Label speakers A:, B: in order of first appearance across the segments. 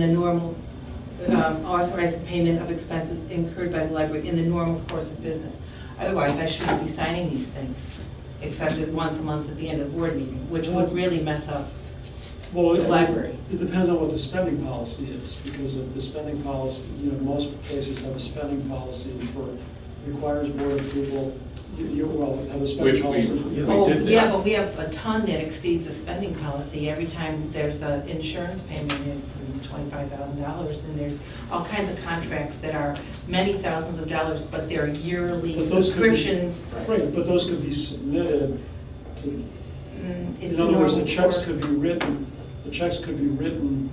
A: in the normal, um, authorizing payment of expenses incurred by the library in the normal course of business. Otherwise, I shouldn't be signing these things, except at once a month at the end of the board meeting, which would really mess up
B: Well,
A: the
B: it-
A: library.
B: It depends on what the spending policy is, because if the spending policy, you know, most places have a spending policy for, requires board approval, you, you, well, have a spending
C: Which we-
B: policy.
C: we
B: Yeah.
A: Oh,
C: did that.
A: yeah, but we have a ton that exceeds the spending policy. Every time there's an insurance payment, it's twenty-five thousand dollars, and there's all kinds of contracts that are many thousands of dollars, but they're yearly
B: But those could be-
A: subscriptions.
B: Right, but those could be submitted to,
A: Mm, It's
B: in
A: a
B: other words, the
A: normal
B: checks
A: course.
B: could be written, the checks could be written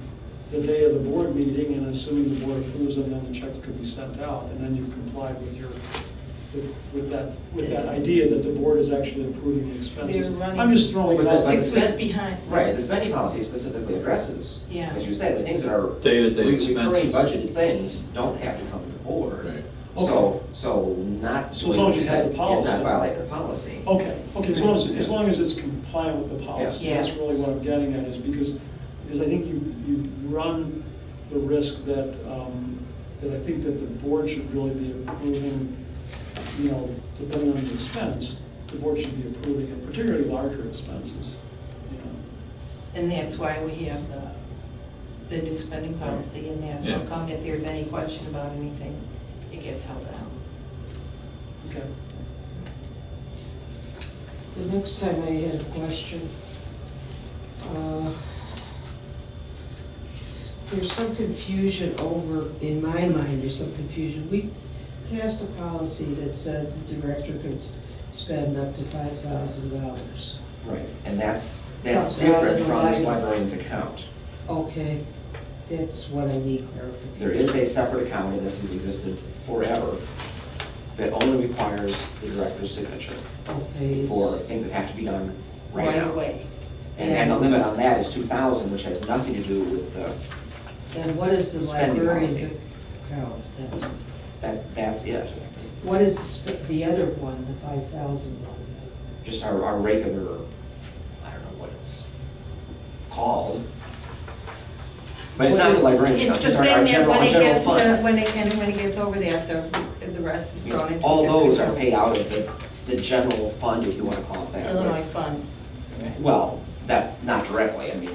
B: the day of the board meeting, and assuming the board approves them, then the checks could be sent out, and then you comply with your, with- with that, with that idea that the board is actually approving the expenses.
A: They're running
B: I'm just throwing it
D: But
B: out.
D: that's like-
A: Six weeks behind.
D: Right, the spending policy specifically addresses,
A: Yeah.
D: as you said, the things that are.
C: Day-to-day
D: re- Recurring
C: expenses.
D: budgeted things don't have to come to the board.
C: Right.
D: So, so not.
B: So as long as you have the
D: It's
B: policy.
D: not violate the policy.
B: Okay, okay, as long as, as long as it's compliant with the policy,
A: Yeah.
B: that's really what I'm getting at, is because, because I think you, you run the risk that, um, that I think that the board should really be approving, you know, depending on the expense, the board should be approving it, particularly larger expenses, you know.
A: And that's why we have the, the new spending policy, and that's how
C: Yeah.
A: come if there's any question about anything, it gets held out.
B: Okay,
E: The next time I had a question, uh, there's some confusion over, in my mind, there's some confusion. We passed a policy that said the director could s- spend up to five thousand dollars.
D: Right, and that's,
E: Comes
D: that's
E: out
D: different
E: of the
D: from this
E: line.
D: librarian's account.
E: Okay, that's what I need clarification.
D: There is a separate account, and this has existed forever, that only requires the director's signature
E: Okay, it's-
D: for things that have to be done right
A: Right
D: now.
A: away.
D: And and the limit on that is two thousand, which has nothing to do with the,
E: then what is the
D: Spending
E: librarian's
D: policy.
E: account then?
D: that, that's it.
E: What is the, sp- the other one, the five thousand one?
D: just our, our regular, I don't know what it's called. But it's not the librarian's account,
A: It's the
D: just our,
A: thing
D: our
A: that
D: general,
A: when
D: our
A: it
D: general
A: gets, to-
D: fund.
A: when it, and when it gets over that, the, the rest is thrown into. a
D: All
A: different
D: those are
A: account.
D: paid out of the, the general fund, if you wanna call it that. but-
A: Illinois funds.
D: Well, that's not directly, I mean.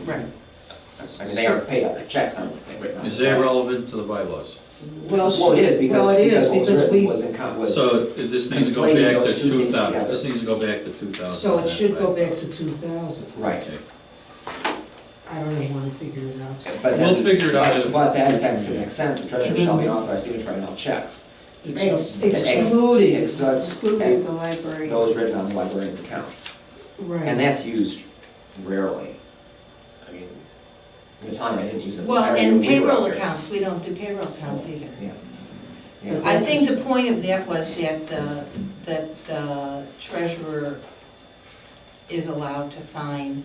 D: I mean, they are paid out of checks, aren't they, written on
C: Is
D: the
C: that
D: back.
C: relevant to the bylaws?
D: Well, it is, because,
E: Well, it
D: because
E: is,
D: what was
E: because
D: written
E: we-
D: was in, con- was.
C: So it- this needs to go
D: conflating
C: back
D: those
C: to
D: two things
C: two thousand,
D: together.
C: this needs to go back to two thousand.
E: So it should go back to two thousand.
D: Right.
C: Okay.
E: I don't even wanna figure it out.
D: But
C: We'll
D: then-
C: figure it out if-
D: But that, that makes sense, the treasurer shall be
A: Mm-hmm.
D: an authorized signator on all checks.
E: Ex-
D: Ex-
E: Excluding,
D: ex-
E: excluding the library.
D: Those written on the librarian's account, and
E: Right.
D: that's used rarely. I mean, the time I didn't use it. I
A: Well,
D: remember
A: and
D: when we were
A: payroll
D: out there.
A: accounts, we don't do payroll accounts either.
D: Yeah.
E: But
D: Yeah,
A: I
E: that's
A: think
E: a-
A: the point of that was that the, that the treasurer is allowed to sign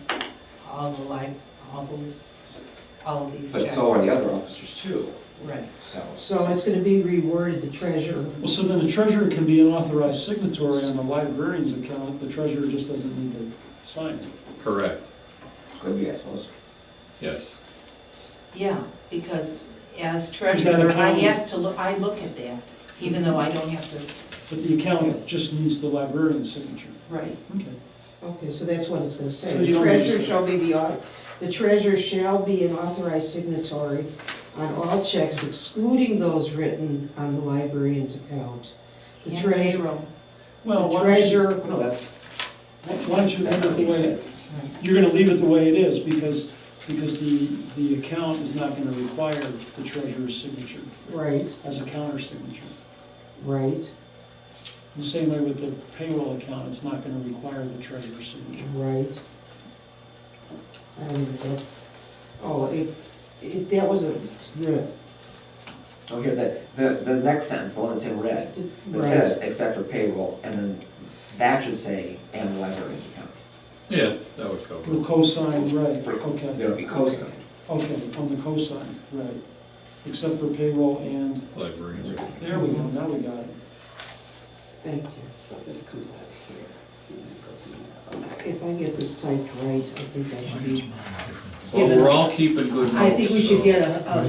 A: all the li, all the, all of these
D: but
A: checks.
D: so are the other officers too,
A: Right.
D: so.
E: So it's gonna be reworded, the treasurer.
B: well, so then the treasurer can be an authorized signatory on the librarian's account, the treasurer just doesn't need to sign it.
C: Correct,
D: Could be, I suppose.
C: yes.
A: Yeah, because as
B: Is that
A: treasurer,
B: a
A: I
B: problem?
A: asked to look, I look at that, even though I don't have to,
B: But the account just needs the librarian's signature.
A: right.
B: Okay.
E: Okay, so that's what it's gonna say.
B: So
E: The
B: you don't need to
E: treasurer
B: say-
E: shall be the, au- the treasurer shall be an authorized signatory on all checks excluding those written on the librarian's account. The
A: And
E: treasurer,
A: payroll.
B: Well,
E: the
B: why don't you-
E: treasurer
D: No, that's,
B: Why why don't you
D: that's
B: leave
D: not
B: it
D: what
B: the
D: you
B: way,
D: said.
B: you're gonna leave it the way it is, because, because the, the account is not gonna require the treasurer's signature
E: Right,
B: as a counter signature.
E: right,
B: The same way with the payroll account, it's not gonna require the treasurer's signature.
E: right. I don't even know. Oh, it, it, that was a, the,
D: Oh, here, the, the, the next sentence, the one that's in red, that
E: Right.
D: says, except for payroll, and then that should say, and the librarian's account.
C: Yeah, that would cover
B: The
C: it.
B: cosign, right,
D: There
B: okay,
D: would be cosigned.
B: okay, on the cosign, right. Except for payroll and,
C: Librarians.
B: there we go, now we got it.
E: Thank you. So this comes out here. If I get this typed right, I think I should be,
C: Well, we're all keeping good notes.
E: I think we should
C: so-
E: get a, a